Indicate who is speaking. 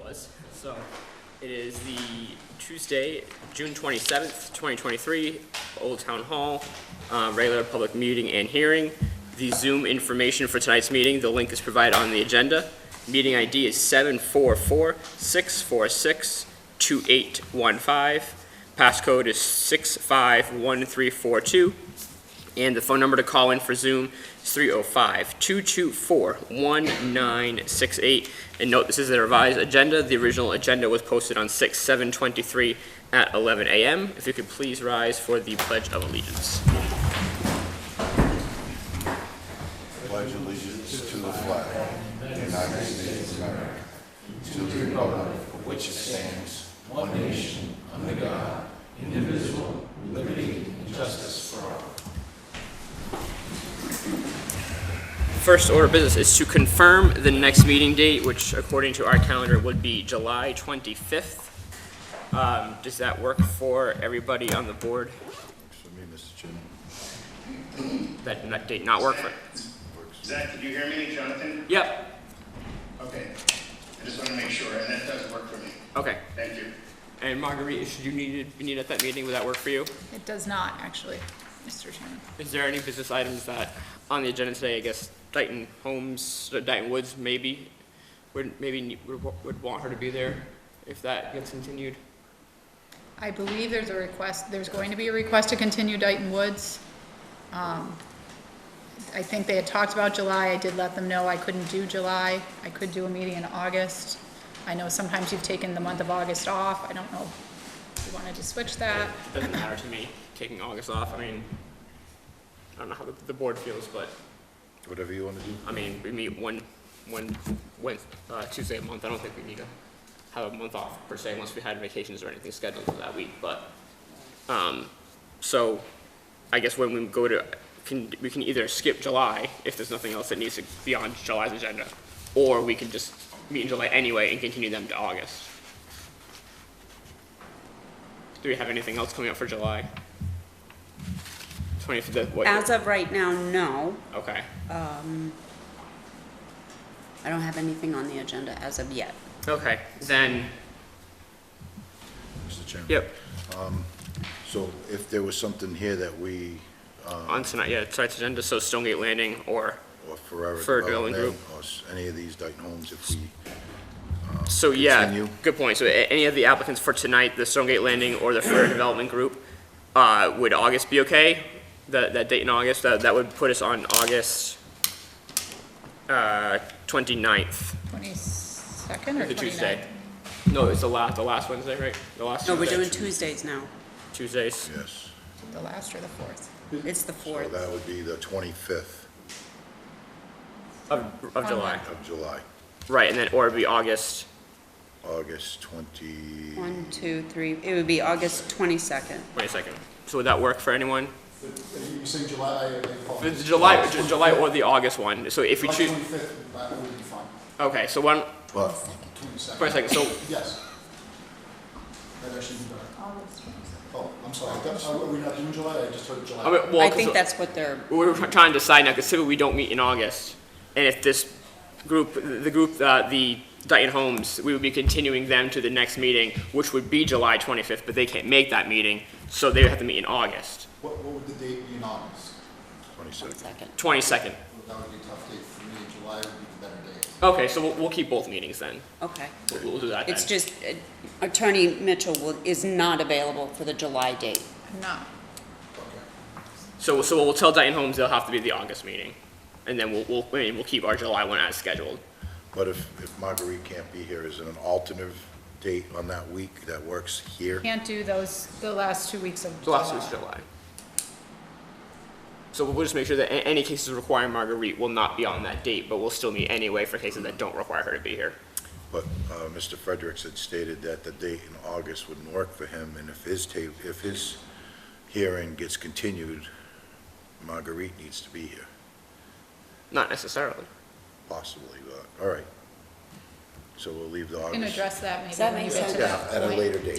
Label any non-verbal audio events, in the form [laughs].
Speaker 1: was. [laughs] So it is the Tuesday, June 27th, 2023, Old Town Hall, uh, regular public meeting and hearing. The Zoom information for tonight's meeting, the link is provided on the agenda. Meeting ID is 744-646-2815. Passcode is 651342. And the phone number to call in for Zoom is 305-224-1968. And note, this is the revised agenda. The original agenda was posted on 6/7/23 at 11 a.m. If you could please rise for the Pledge of Allegiance.
Speaker 2: pledge allegiance to the flag of the United States of America, to the republic for which it stands, one nation, under God, indivisible, with liberty and justice for all.
Speaker 1: First order of business is to confirm the next meeting date, which according to our calendar would be July 25th. Um, Does that work for everybody on the board?
Speaker 2: Works for me, Mr. Chairman.
Speaker 1: That that date not work for?
Speaker 2: Works.
Speaker 3: Zach, did you hear me, Jonathan?
Speaker 1: Yep,
Speaker 3: Okay. I just want to make sure, and that does work for me.
Speaker 1: okay.
Speaker 3: Thank you.
Speaker 1: And Marguerite, should you need, be needed at that meeting, would that work for you?
Speaker 4: It does not, actually, Mr. Chairman.
Speaker 1: Is there any business items that, on the agenda today, I guess Dighton Homes, uh, Dighton Woods maybe, would, maybe ne- would wa- would want her to be there if that gets continued?
Speaker 4: I believe there's a request, there's going to be a request to continue Dighton Woods. Um, I think they had talked about July, I did let them know I couldn't do July, I could do a meeting in August. I know sometimes you've taken the month of August off, I don't know if you wanted to switch that.
Speaker 1: It Doesn't matter to me, taking August off, I mean, I don't know how the, the board feels, but,
Speaker 2: Whatever you want to do.
Speaker 1: I mean, we meet one, one, Wed- uh, Tuesday a month, I don't think we need to have a month off per se, unless we had vacations or anything scheduled for that week, but, um, so, I guess when we go to, can, we can either skip July, if there's nothing else that needs to be on July's agenda, or we can just meet in July anyway and continue them to August. Do we have anything else coming up for July? Twenty, the, what?
Speaker 5: As of right now, no.
Speaker 1: Okay,
Speaker 5: I don't have anything on the agenda as of yet.
Speaker 1: okay, then,
Speaker 2: Mr. Chairman.
Speaker 1: yep,
Speaker 2: So if there was something here that we,
Speaker 1: on tonight, yeah, tonight's agenda, so Stonegate Landing or,
Speaker 2: or Forever
Speaker 1: For Dwelling
Speaker 2: Development, or s- any of these Dayton homes, if we,
Speaker 1: so yeah,
Speaker 2: Continue.
Speaker 1: good point. So a- any of the applicants for tonight, the Stonegate Landing or the Fair Development Group, uh, would August be okay? That, that date in August, that, that would put us on August, uh, twenty-ninth,
Speaker 4: Twenty-second or
Speaker 1: the Tuesday.
Speaker 4: twenty-ninth?
Speaker 1: No, it's the last, the last Wednesday, right? The last
Speaker 5: No, we're
Speaker 1: Tuesday.
Speaker 5: doing Tuesdays now.
Speaker 1: Tuesdays,
Speaker 2: yes.
Speaker 4: The last or the fourth?
Speaker 1: Mm-hmm.
Speaker 5: It's the
Speaker 2: So
Speaker 5: fourth.
Speaker 2: that would be the 25th
Speaker 1: of, of July,
Speaker 2: of July,
Speaker 1: right, and then, or it'd be August,
Speaker 2: August 20,
Speaker 5: One, two, three, it would be August twenty-second.
Speaker 1: twenty-second. So would that work for anyone?
Speaker 6: You say July, uh, I
Speaker 1: The
Speaker 6: apologize.
Speaker 1: July, Ju- July or the August one, so if we
Speaker 6: July
Speaker 1: choose,
Speaker 6: 25th, that would be fine.
Speaker 1: okay, so one,
Speaker 2: but
Speaker 6: 22nd.
Speaker 1: for a second, so
Speaker 6: Yes. That actually would be better. Oh, I'm sorry. That- Are we not doing July? I just heard July.
Speaker 1: I mean, well,
Speaker 5: I
Speaker 1: 'cause
Speaker 5: think that's what they're,
Speaker 1: we're trying to decide now because typically we don't meet in August, and if this group, the group, uh, the Dayton Homes, we would be continuing them to the next meeting, which would be July 25th, but they can't make that meeting, so they would have to meet in August,
Speaker 6: What, what would the date be in August?
Speaker 2: 22nd.
Speaker 5: one second.
Speaker 1: 22nd.
Speaker 6: That would be a tough date for me. July would be the better date.
Speaker 1: Okay, so we'll, we'll keep both meetings then.
Speaker 5: Okay.
Speaker 1: We'll- We'll do that then.
Speaker 5: It's just uh, Attorney Mitchell will, is not available for the July date.
Speaker 4: No,
Speaker 1: So, so we'll tell Dayton Homes they'll have to be the August meeting, and then we'll, we'll, I mean, we'll keep our July one as scheduled.
Speaker 2: But if, if Marguerite can't be here, is it an alternative date on that week that works here?
Speaker 4: can't do those, the last two weeks of
Speaker 1: So last week's July. So we'll just make sure that a- any cases requiring Marguerite will not be on that date, but we'll still meet anyway for cases that don't require her to be here.
Speaker 2: But uh, Mr. Fredericks had stated that the date in August wouldn't work for him, and if his tape, if his hearing gets continued, Marguerite needs to be here,
Speaker 1: Not necessarily.
Speaker 2: possibly, but, all right. So we'll leave the
Speaker 4: Can
Speaker 2: August.
Speaker 4: address that
Speaker 5: Does
Speaker 4: maybe
Speaker 5: that
Speaker 4: when you
Speaker 5: make
Speaker 4: get to
Speaker 5: sense?
Speaker 2: Yeah,
Speaker 4: that
Speaker 2: at a
Speaker 4: point.
Speaker 2: later date.